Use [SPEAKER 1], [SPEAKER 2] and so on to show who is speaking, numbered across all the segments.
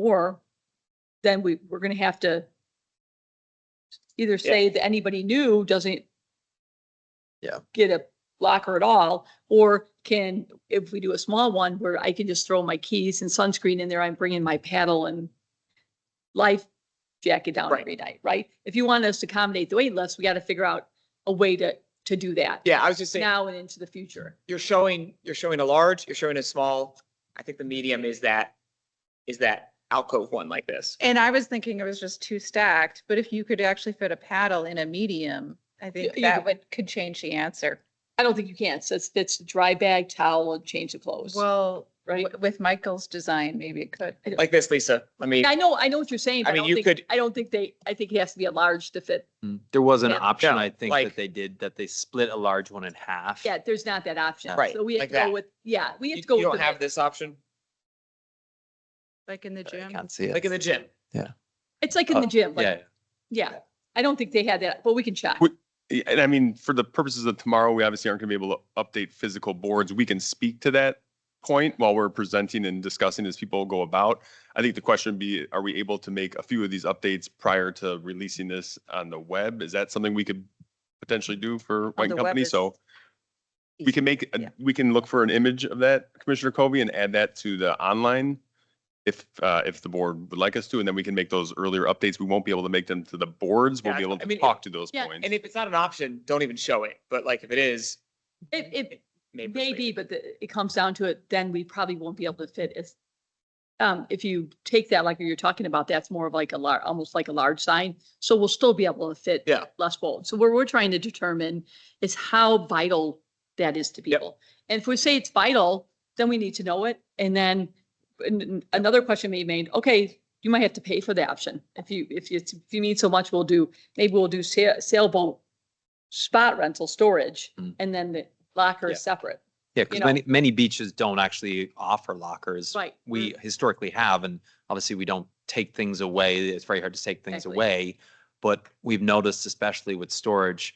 [SPEAKER 1] more, then we, we're gonna have to either say that anybody new doesn't
[SPEAKER 2] Yeah.
[SPEAKER 1] get a locker at all, or can, if we do a small one where I can just throw my keys and sunscreen in there, I'm bringing my paddle and life jacket down
[SPEAKER 2] Right.
[SPEAKER 1] every night, right? If you want us to accommodate the wait list, we gotta figure out a way to, to do that.
[SPEAKER 2] Yeah, I was just saying,
[SPEAKER 1] Now and into the future.
[SPEAKER 2] you're showing, you're showing a large, you're showing a small. I think the medium is that, is that alcove one like this.
[SPEAKER 3] And I was thinking it was just too stacked, but if you could actually fit a paddle in a medium, I think
[SPEAKER 1] you
[SPEAKER 3] that
[SPEAKER 1] could-
[SPEAKER 3] would, could change the answer.
[SPEAKER 1] I don't think you can, so it's, it's dry bag, towel, and change of clothes.
[SPEAKER 3] Well,
[SPEAKER 1] Right.
[SPEAKER 3] w- with Michael's design, maybe it could.
[SPEAKER 2] Like this, Lisa. Let me,
[SPEAKER 1] I know, I know what you're saying, but
[SPEAKER 2] I
[SPEAKER 1] I
[SPEAKER 2] mean,
[SPEAKER 1] don't
[SPEAKER 2] you
[SPEAKER 1] think,
[SPEAKER 2] could-
[SPEAKER 1] I don't think they, I think it has to be a large to fit.
[SPEAKER 4] Mm, There was an
[SPEAKER 1] Yeah.
[SPEAKER 4] option,
[SPEAKER 2] No,
[SPEAKER 4] I think,
[SPEAKER 2] like-
[SPEAKER 4] that they did, that they split a large one in half.
[SPEAKER 1] Yeah, there's not that option.
[SPEAKER 2] Right,
[SPEAKER 1] So we have
[SPEAKER 2] like
[SPEAKER 1] to go
[SPEAKER 2] that.
[SPEAKER 1] with, yeah, we have
[SPEAKER 2] you
[SPEAKER 1] to go
[SPEAKER 2] you
[SPEAKER 1] with.
[SPEAKER 2] don't
[SPEAKER 1] the-
[SPEAKER 2] have this option,
[SPEAKER 3] Like in the
[SPEAKER 4] I
[SPEAKER 3] gym.
[SPEAKER 4] can't see
[SPEAKER 2] like in
[SPEAKER 4] it.
[SPEAKER 2] the gym.
[SPEAKER 1] It's like
[SPEAKER 2] uh,
[SPEAKER 1] in the
[SPEAKER 4] Oh,
[SPEAKER 1] gym,
[SPEAKER 4] Yeah,
[SPEAKER 1] like, yeah. I don't think they had that, but we can check.
[SPEAKER 5] We- Yeah, And I mean, for the purposes of tomorrow, we obviously aren't going to be able to update physical boards. We can speak to that point while we're presenting and discussing as people go about. I think the question would be, are we able to make a few of these updates prior to releasing this on the web? Is that something we could potentially do for White
[SPEAKER 3] the
[SPEAKER 5] and
[SPEAKER 3] web
[SPEAKER 5] Company?
[SPEAKER 3] is
[SPEAKER 5] So we can make, a-
[SPEAKER 3] yeah.
[SPEAKER 5] we can look for an image of that, Commissioner Covey, and add that to the online if, uh, if the board would like us to, and then we can make those earlier updates. We won't be able to make them to the boards. We'll
[SPEAKER 2] Yeah,
[SPEAKER 5] be able
[SPEAKER 2] I
[SPEAKER 5] to
[SPEAKER 2] mean,
[SPEAKER 5] talk to those
[SPEAKER 1] yeah,
[SPEAKER 5] points.
[SPEAKER 2] And if it's not an option, don't even show it. But like if it is,
[SPEAKER 1] It,
[SPEAKER 2] maybe.
[SPEAKER 1] it
[SPEAKER 2] persuade
[SPEAKER 1] may be,
[SPEAKER 2] it.
[SPEAKER 1] but the- it comes down to it, then we probably won't be able to fit as. Um, if you take that, like you're talking about, that's more of like a lar, almost like a large sign. So we'll still be able to fit.
[SPEAKER 2] Yeah.
[SPEAKER 1] Less bold. So what we're trying to determine is how vital that is to
[SPEAKER 2] Yep.
[SPEAKER 1] people. And if we say it's vital, then we need to know it. And then an- an- another question may be made, okay, you might have to pay for the option. If you, if you, if you need so much, we'll do, maybe we'll do sa- sailboat spot rental storage
[SPEAKER 4] Mm.
[SPEAKER 1] and then the locker
[SPEAKER 2] Yeah.
[SPEAKER 1] is separate.
[SPEAKER 4] yeah,
[SPEAKER 1] you
[SPEAKER 4] because
[SPEAKER 1] know-
[SPEAKER 4] many, many beaches don't actually offer lockers.
[SPEAKER 1] Right.
[SPEAKER 4] We historically have, and obviously we don't take things away. It's very hard to take things
[SPEAKER 1] Exactly.
[SPEAKER 4] away. But we've noticed, especially with storage,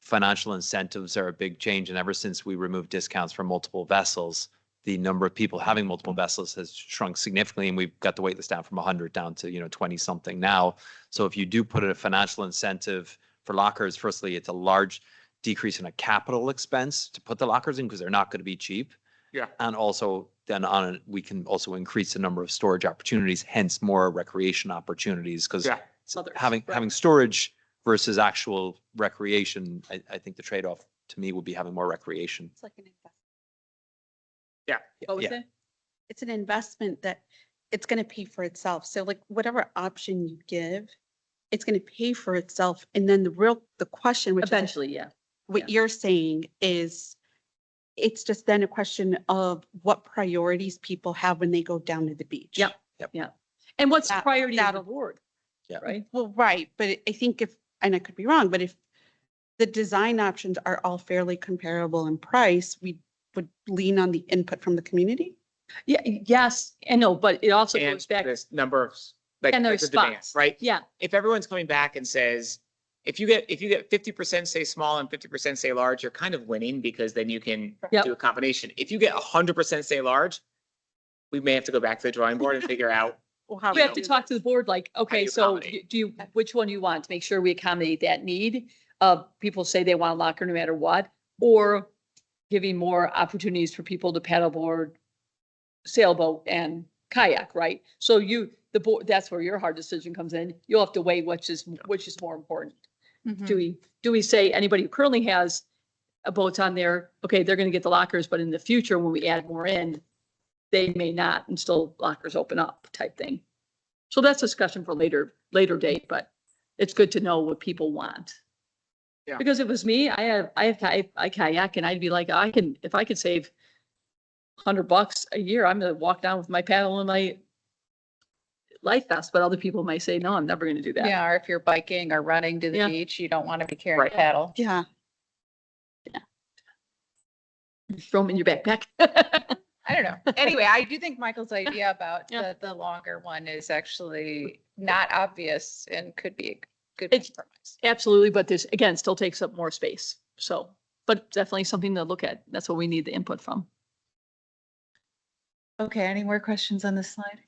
[SPEAKER 4] financial incentives are a big change. And ever since we removed discounts for multiple vessels, the number of people having multiple vessels has shrunk significantly. And we've got the waitlist down from 100 down to, you know, 20 something now. So if you do put a financial incentive for lockers, firstly, it's a large decrease in a capital expense to put the lockers in because they're not going to be cheap.
[SPEAKER 2] Yeah.
[SPEAKER 4] And also then on, it, we can also increase the number of storage opportunities, hence more recreation opportunities because
[SPEAKER 2] Yeah.
[SPEAKER 1] Others,
[SPEAKER 4] having,
[SPEAKER 1] right.
[SPEAKER 4] having storage versus actual recreation, I, I think the trade-off to me would be having more recreation.
[SPEAKER 6] It's like an investment.
[SPEAKER 1] What was
[SPEAKER 4] Yeah.
[SPEAKER 1] it?
[SPEAKER 6] It's an investment that it's going to pay for itself. So like whatever option you give, it's going to pay for itself. And then the real, the question, which is
[SPEAKER 1] Eventually, yeah.
[SPEAKER 6] what you're saying is it's just then a question of what priorities people have when they go down to the beach.
[SPEAKER 1] Yep. And what's the
[SPEAKER 6] That-
[SPEAKER 1] priority of the
[SPEAKER 6] that'll-
[SPEAKER 1] board?
[SPEAKER 4] Yeah.
[SPEAKER 1] Right?
[SPEAKER 6] Well, right, but I think if, and I could be wrong, but if the design options are all fairly comparable in price, we would lean on the input from the community.
[SPEAKER 1] Yeah, yes, I know, but it also
[SPEAKER 2] And
[SPEAKER 1] goes back,
[SPEAKER 2] this number of, s- like,
[SPEAKER 1] And
[SPEAKER 2] like
[SPEAKER 1] there's
[SPEAKER 2] the demand,
[SPEAKER 1] spots.
[SPEAKER 2] right?
[SPEAKER 1] yeah,
[SPEAKER 2] if everyone's coming back and says, if you get, if you get fifty percent say small and fifty percent say large, you're kind of winning because then you can
[SPEAKER 1] Yep.
[SPEAKER 2] do a combination. If you get hundred percent say large, we may have to go back to the drawing board and figure out.
[SPEAKER 1] we have to talk to the board like, okay,
[SPEAKER 2] you
[SPEAKER 1] so
[SPEAKER 2] accommodate?
[SPEAKER 1] you- do you, which one you want? to Make sure we accommodate that need of people say they want a locker no matter what, or giving more opportunities for people to paddleboard, sailboat and kayak, right? So you, the board, that's where your hard decision comes in. You'll have to weigh which is, which is more important. Do we, do we say anybody who currently has a boat on there, okay, they're gonna get the lockers, but in the future, when we add more in, they may not and still lockers open up type thing. So that's a discussion for later, later date, but it's good to know what people want.
[SPEAKER 2] Yeah.
[SPEAKER 1] Because if it was me, I have, I have, ki- I kayak and I'd be like, I can, if I could save hundred bucks a year, I'm gonna walk down with my paddle and my life vest, but other people might say, no, I'm never gonna do that.
[SPEAKER 3] Yeah, or if you're biking or running to
[SPEAKER 1] Yeah.
[SPEAKER 3] the beach, you don't want to be carrying
[SPEAKER 2] Right.
[SPEAKER 3] paddle.
[SPEAKER 6] Yeah.
[SPEAKER 1] Throw them in your backpack.
[SPEAKER 3] I don't know. Anyway, I do think Michael's idea about
[SPEAKER 1] Yeah.
[SPEAKER 3] the, the longer one is actually not obvious and could be a good
[SPEAKER 1] It's-
[SPEAKER 3] compromise.
[SPEAKER 1] Absolutely, but this, again, still takes up more space, so, but definitely something to look at. That's what we need the input from.
[SPEAKER 3] Okay, any more questions on this slide?